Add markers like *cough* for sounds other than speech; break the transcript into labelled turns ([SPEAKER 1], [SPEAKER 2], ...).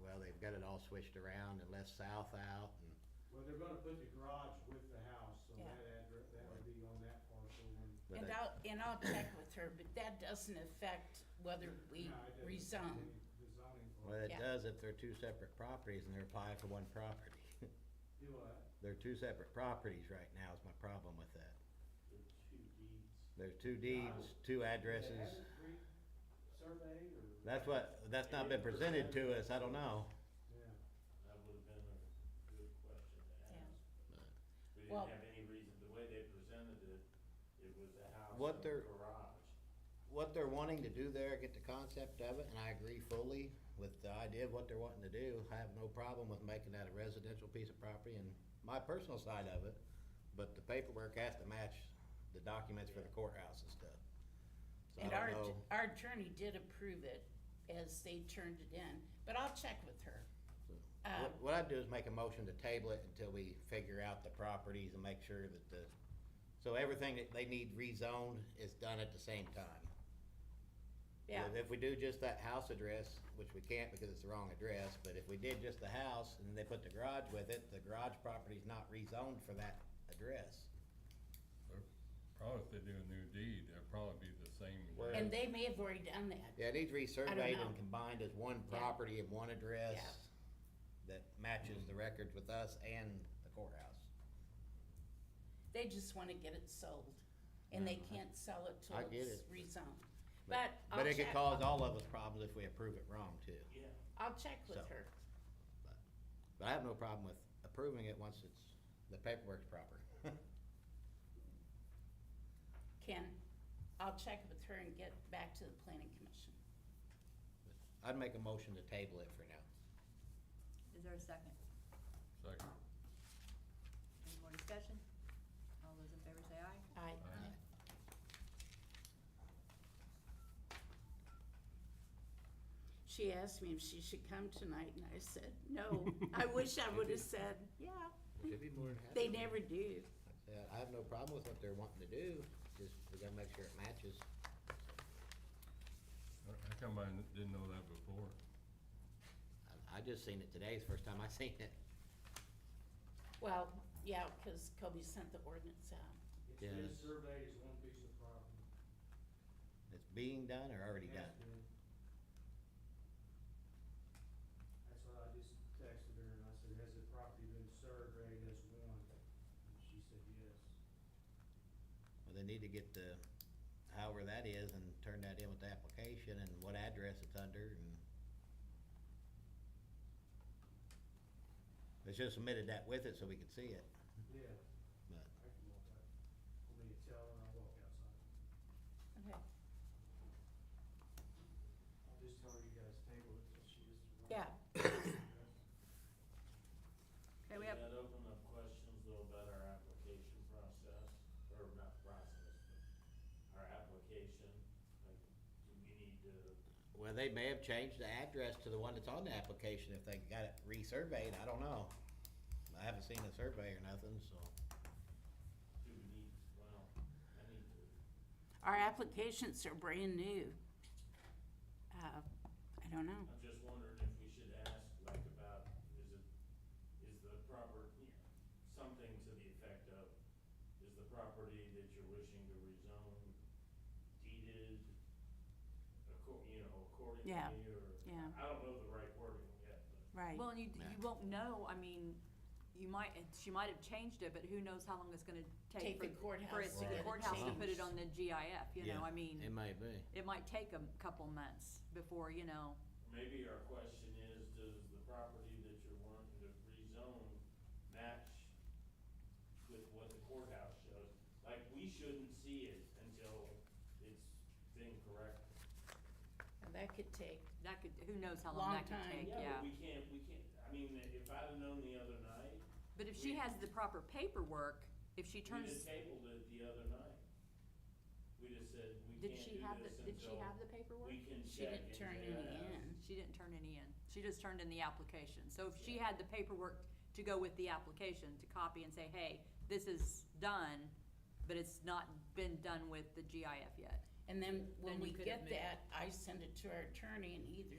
[SPEAKER 1] well, they've got it all switched around and left south out and,
[SPEAKER 2] Well, they're gonna put the garage with the house, so
[SPEAKER 3] Yeah.
[SPEAKER 2] that address, that would be on that parcel and.
[SPEAKER 1] but
[SPEAKER 3] And
[SPEAKER 1] they-
[SPEAKER 3] I'll, and I'll check with her, but that doesn't affect whether Oh, we
[SPEAKER 2] No, it doesn't
[SPEAKER 3] rezone.
[SPEAKER 2] affect The zoning for
[SPEAKER 1] well, it
[SPEAKER 3] Yeah.
[SPEAKER 1] does if they're two separate properties and they're applying for one property.
[SPEAKER 2] Do what?
[SPEAKER 1] They're two separate properties right now is my problem with that.
[SPEAKER 2] The two deeds.
[SPEAKER 1] There's two deeds, two addresses.
[SPEAKER 2] Survey or?
[SPEAKER 1] That's what, that's not been presented to us, I don't know.
[SPEAKER 2] Yeah.
[SPEAKER 4] That would have been a good question to
[SPEAKER 3] Yeah.
[SPEAKER 4] ask. but We
[SPEAKER 3] Well-
[SPEAKER 4] didn't have any reason, the way they presented it, it was a house
[SPEAKER 1] What
[SPEAKER 4] and a
[SPEAKER 1] they're-
[SPEAKER 4] garage.
[SPEAKER 1] What they're wanting to do there, I get the concept of it, and I agree fully with the idea of what they're wanting to do. I have no problem with making that a residential piece of property and my personal side of it, but the paperwork has to match the documents for the courthouse and stuff. So I
[SPEAKER 3] And
[SPEAKER 1] don't
[SPEAKER 3] our,
[SPEAKER 1] know.
[SPEAKER 3] our attorney did approve it as they turned it in, but I'll check with her. uh,
[SPEAKER 1] What- What I'd do is make a motion to table it until we figure out the properties and make sure that the, so everything that they need rezoned is done at the same time. If-
[SPEAKER 3] Yeah,
[SPEAKER 1] If we do just that house address, which we can't because it's the wrong address, but if we did just the house and they put the garage with it, the garage property's not rezoned for that address.
[SPEAKER 5] They're- Probably if they do a new deed, it'll probably be the same.
[SPEAKER 1] Where-
[SPEAKER 3] and they may have already done that.
[SPEAKER 1] Yeah, it needs resurveyed
[SPEAKER 3] know.
[SPEAKER 1] and combined as one property and one address that matches the records with us and the courthouse.
[SPEAKER 3] They just want to get it sold, and they can't sell it till
[SPEAKER 1] I get
[SPEAKER 3] it's
[SPEAKER 1] it.
[SPEAKER 3] rezoned. But
[SPEAKER 1] But
[SPEAKER 3] I'll
[SPEAKER 1] it could
[SPEAKER 3] check,
[SPEAKER 1] cause all of us problems if we approve it wrong too.
[SPEAKER 4] Yeah.
[SPEAKER 3] I'll check with
[SPEAKER 1] So.
[SPEAKER 3] her.
[SPEAKER 1] But I have no problem with approving it once it's, the paperwork's proper.
[SPEAKER 3] Ken, I'll check with her and get back to the planning commission.
[SPEAKER 1] I'd make a motion to table it for now.
[SPEAKER 6] Is there a second?
[SPEAKER 5] Second.
[SPEAKER 6] Any more discussion? All those in favor say aye.
[SPEAKER 3] I,
[SPEAKER 5] Aye.
[SPEAKER 3] she asked me if she should come tonight, and I said, *laughs* no. I wish I would have said, yeah.
[SPEAKER 1] Should be more than happy.
[SPEAKER 3] They never do.
[SPEAKER 1] Yeah, I have no problem with what they're wanting to do, just we gotta make sure it matches.
[SPEAKER 5] How come I didn't know that before?
[SPEAKER 1] I, I just seen it today, it's the first time I *laughs* seen it.
[SPEAKER 3] Well, yeah, because Kobe sent the ordinance out.
[SPEAKER 2] It
[SPEAKER 1] Yeah,
[SPEAKER 2] says
[SPEAKER 1] it's-
[SPEAKER 2] survey is one piece of property.
[SPEAKER 1] It's being done or already
[SPEAKER 2] Has
[SPEAKER 1] done?
[SPEAKER 2] been. That's what I just texted her and I said, has the property been surveyed as one? And she said, yes.
[SPEAKER 1] Well, they need to get the, however that is, and turn that in with the application and what address it's under and. They should have submitted that with it so we could see it,
[SPEAKER 2] Yeah,
[SPEAKER 1] but
[SPEAKER 2] I can walk out. I'll be a teller and I'll walk outside.
[SPEAKER 3] Okay.
[SPEAKER 2] I'll just tell her you guys table it till she gets. the-
[SPEAKER 3] Yeah.
[SPEAKER 6] Okay, we
[SPEAKER 4] Does
[SPEAKER 6] have,
[SPEAKER 4] that open up questions though about our application process, or not process, but our application? Like, do we need to,
[SPEAKER 1] Well, they may have changed the address to the one that's on the application if they got it resurveyed, I don't know. I haven't seen the survey or nothing, so.
[SPEAKER 4] do we need, well, I need to,
[SPEAKER 3] Our applications are brand new. Uh, I don't know.
[SPEAKER 4] I'm just wondering if we should ask like about, is it, is the proper, you know, something to the effect of, is the property that you're wishing to rezone deeded, accor, you know, accordingly,
[SPEAKER 3] Yeah,
[SPEAKER 4] or?
[SPEAKER 3] yeah.
[SPEAKER 4] I don't know the right wording yet, but.
[SPEAKER 3] Right.
[SPEAKER 6] well, you, you won't know, I mean, you might, she might have changed it, but who knows how long it's gonna
[SPEAKER 3] Take
[SPEAKER 6] take.
[SPEAKER 3] the
[SPEAKER 6] for-
[SPEAKER 3] courthouse
[SPEAKER 6] For it
[SPEAKER 3] to
[SPEAKER 6] to
[SPEAKER 3] get it
[SPEAKER 6] the courthouse to put
[SPEAKER 3] changed.
[SPEAKER 6] it on the GIF, you know,
[SPEAKER 1] It
[SPEAKER 6] I mean,
[SPEAKER 1] may be.
[SPEAKER 6] it might take a couple months before, you know,
[SPEAKER 4] Maybe our question is, does the property that you're wanting to rezone match with what the courthouse shows? Like, we shouldn't see it until it's been corrected.
[SPEAKER 3] That could take,
[SPEAKER 6] that could, who knows how
[SPEAKER 3] Long
[SPEAKER 6] long that could
[SPEAKER 3] time.
[SPEAKER 6] take,
[SPEAKER 4] Yeah, but
[SPEAKER 6] yeah.
[SPEAKER 4] we can't, we can't, I mean, if I'd have known the other night,
[SPEAKER 6] But if she has the proper paperwork, if she
[SPEAKER 4] we'd have
[SPEAKER 6] turns,
[SPEAKER 4] tabled it the other night. We'd have said, we
[SPEAKER 6] did
[SPEAKER 4] can't
[SPEAKER 6] she
[SPEAKER 4] do
[SPEAKER 6] have,
[SPEAKER 4] this
[SPEAKER 6] the? did she
[SPEAKER 4] until
[SPEAKER 6] have the paperwork?
[SPEAKER 4] We can check.
[SPEAKER 3] she didn't
[SPEAKER 4] and
[SPEAKER 3] turn
[SPEAKER 4] say,
[SPEAKER 3] any
[SPEAKER 4] "Ah,
[SPEAKER 3] in.
[SPEAKER 6] She didn't turn any in. She just turned in the application. So if she had the paperwork to go with the application, to copy and say, hey, this is done, but it's not been done with the GIF yet.
[SPEAKER 3] And then when
[SPEAKER 6] Then
[SPEAKER 3] we
[SPEAKER 6] you could
[SPEAKER 3] get
[SPEAKER 6] admit it.
[SPEAKER 3] that, I send it to our attorney and he either